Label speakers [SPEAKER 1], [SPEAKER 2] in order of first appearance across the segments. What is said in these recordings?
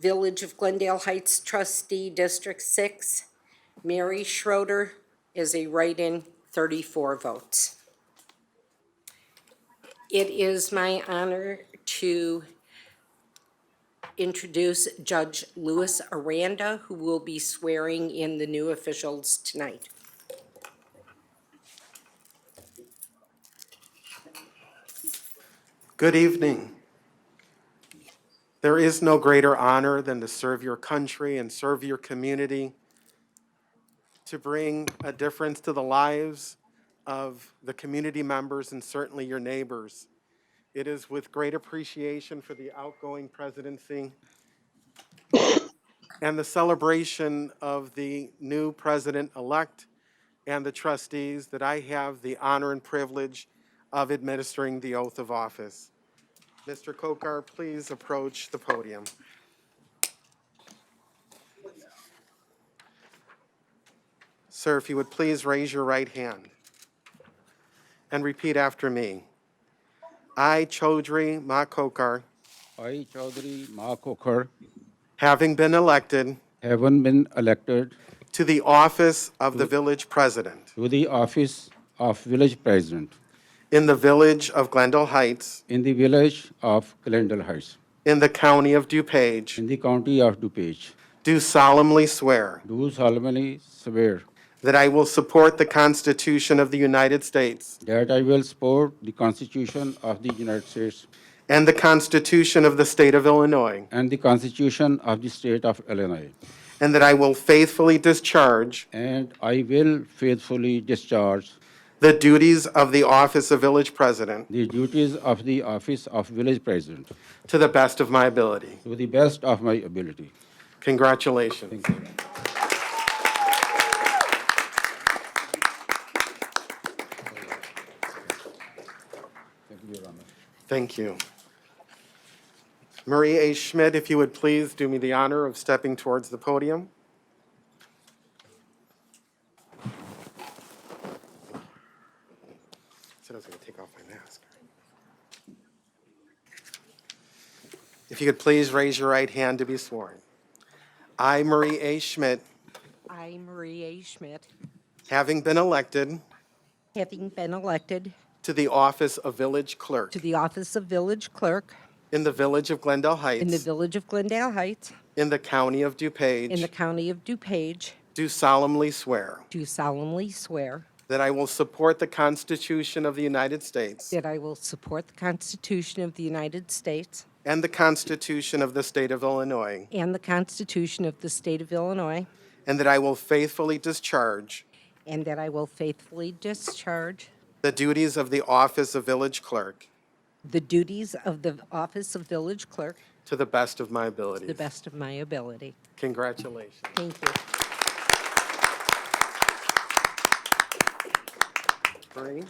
[SPEAKER 1] Village of Glendale Heights trustee, District Six. Mary Schroeder is a write-in, thirty-four votes. It is my honor to introduce Judge Louis Aranda, who will be swearing in the new officials tonight.
[SPEAKER 2] Good evening. There is no greater honor than to serve your country and serve your community, to bring a difference to the lives of the community members and certainly your neighbors. It is with great appreciation for the outgoing presidency and the celebration of the new president-elect and the trustees that I have the honor and privilege of administering the oath of office. Mr. Kokar, please approach the podium. Sir, if you would please raise your right hand and repeat after me. I, Chaudhry Ma Kokar,
[SPEAKER 3] I, Chaudhry Ma Kokar,
[SPEAKER 2] having been elected
[SPEAKER 3] haven't been elected
[SPEAKER 2] to the office of the village president
[SPEAKER 3] to the office of village president
[SPEAKER 2] in the village of Glendale Heights,
[SPEAKER 3] in the village of Glendale Heights,
[SPEAKER 2] in the county of DuPage,
[SPEAKER 3] in the county of DuPage,
[SPEAKER 2] do solemnly swear
[SPEAKER 3] do solemnly swear
[SPEAKER 2] That I will support the Constitution of the United States
[SPEAKER 3] that I will support the Constitution of the United States
[SPEAKER 2] and the Constitution of the State of Illinois,
[SPEAKER 3] and the Constitution of the State of Illinois,
[SPEAKER 2] and that I will faithfully discharge
[SPEAKER 3] and I will faithfully discharge
[SPEAKER 2] the duties of the office of village president
[SPEAKER 3] the duties of the office of village president
[SPEAKER 2] to the best of my ability.
[SPEAKER 3] to the best of my ability.
[SPEAKER 2] Congratulations. Thank you. Marie A. Schmidt, if you would please do me the honor of stepping towards the podium. Said I was going to take off my mask. If you could please raise your right hand to be sworn. I, Marie A. Schmidt,
[SPEAKER 1] I, Marie A. Schmidt,
[SPEAKER 2] having been elected
[SPEAKER 1] having been elected
[SPEAKER 2] to the office of village clerk
[SPEAKER 1] to the office of village clerk
[SPEAKER 2] in the village of Glendale
[SPEAKER 1] in the
[SPEAKER 2] Heights,
[SPEAKER 1] village of Glendale Heights
[SPEAKER 2] in the county of
[SPEAKER 1] in the
[SPEAKER 2] DuPage,
[SPEAKER 1] county of DuPage,
[SPEAKER 2] do solemnly swear
[SPEAKER 1] do solemnly swear
[SPEAKER 2] that I will support the Constitution of the United States
[SPEAKER 1] that I will support the Constitution of the United States
[SPEAKER 2] and the Constitution of the State of Illinois,
[SPEAKER 1] and the Constitution of the State of Illinois,
[SPEAKER 2] and that I will faithfully discharge
[SPEAKER 1] and that I will faithfully discharge
[SPEAKER 2] the duties of the office of village clerk
[SPEAKER 1] the duties of the office of village clerk
[SPEAKER 2] to the best of my
[SPEAKER 1] to the
[SPEAKER 2] ability.
[SPEAKER 1] best of my ability.
[SPEAKER 2] Congratulations.
[SPEAKER 1] Thank you.
[SPEAKER 2] Marie?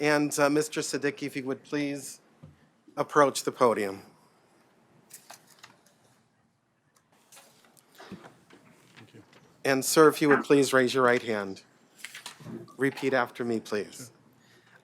[SPEAKER 2] And uh, Mr. Siddiqui, if you would please approach the podium. And sir, if you would please raise your right hand. Repeat after me, please.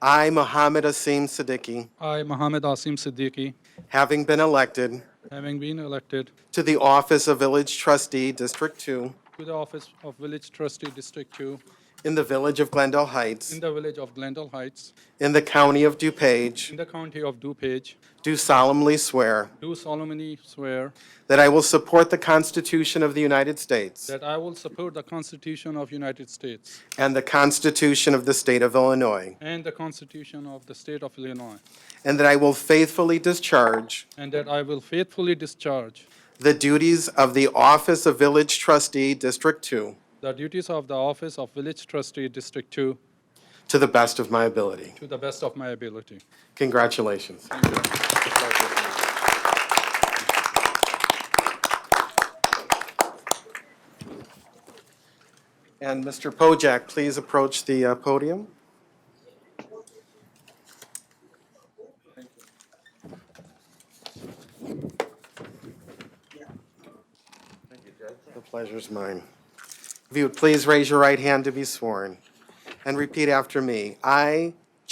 [SPEAKER 2] I, Mohammed Asim Siddiqui,
[SPEAKER 4] I, Mohammed Asim Siddiqui,
[SPEAKER 2] having been elected
[SPEAKER 4] having been elected
[SPEAKER 2] to the office of Village Trustee, District 2,
[SPEAKER 4] to the office of Village Trustee District 2
[SPEAKER 2] in the Village of Glendale Heights,
[SPEAKER 4] in the village of Glendale Heights
[SPEAKER 2] In the county of
[SPEAKER 4] in
[SPEAKER 2] DuPage,
[SPEAKER 4] the county of DuPage,
[SPEAKER 2] do solemnly swear
[SPEAKER 4] do solemnly swear
[SPEAKER 2] that I will support the Constitution of the United States
[SPEAKER 4] that I will support the Constitution of United States
[SPEAKER 2] and the Constitution of the State of Illinois,
[SPEAKER 4] and the Constitution of the State of Illinois,
[SPEAKER 2] and that I will faithfully discharge
[SPEAKER 4] and that I will faithfully discharge
[SPEAKER 2] the duties of the Office of Village Trustee, District 2,
[SPEAKER 4] the duties of the office of Village Trustee District 2
[SPEAKER 2] to the best of my ability.
[SPEAKER 4] to the best of my ability.
[SPEAKER 2] Congratulations. And Mr. Pojak, please approach the uh, podium. The pleasure's mine. If you would please raise your right hand to be sworn and repeat after me. I,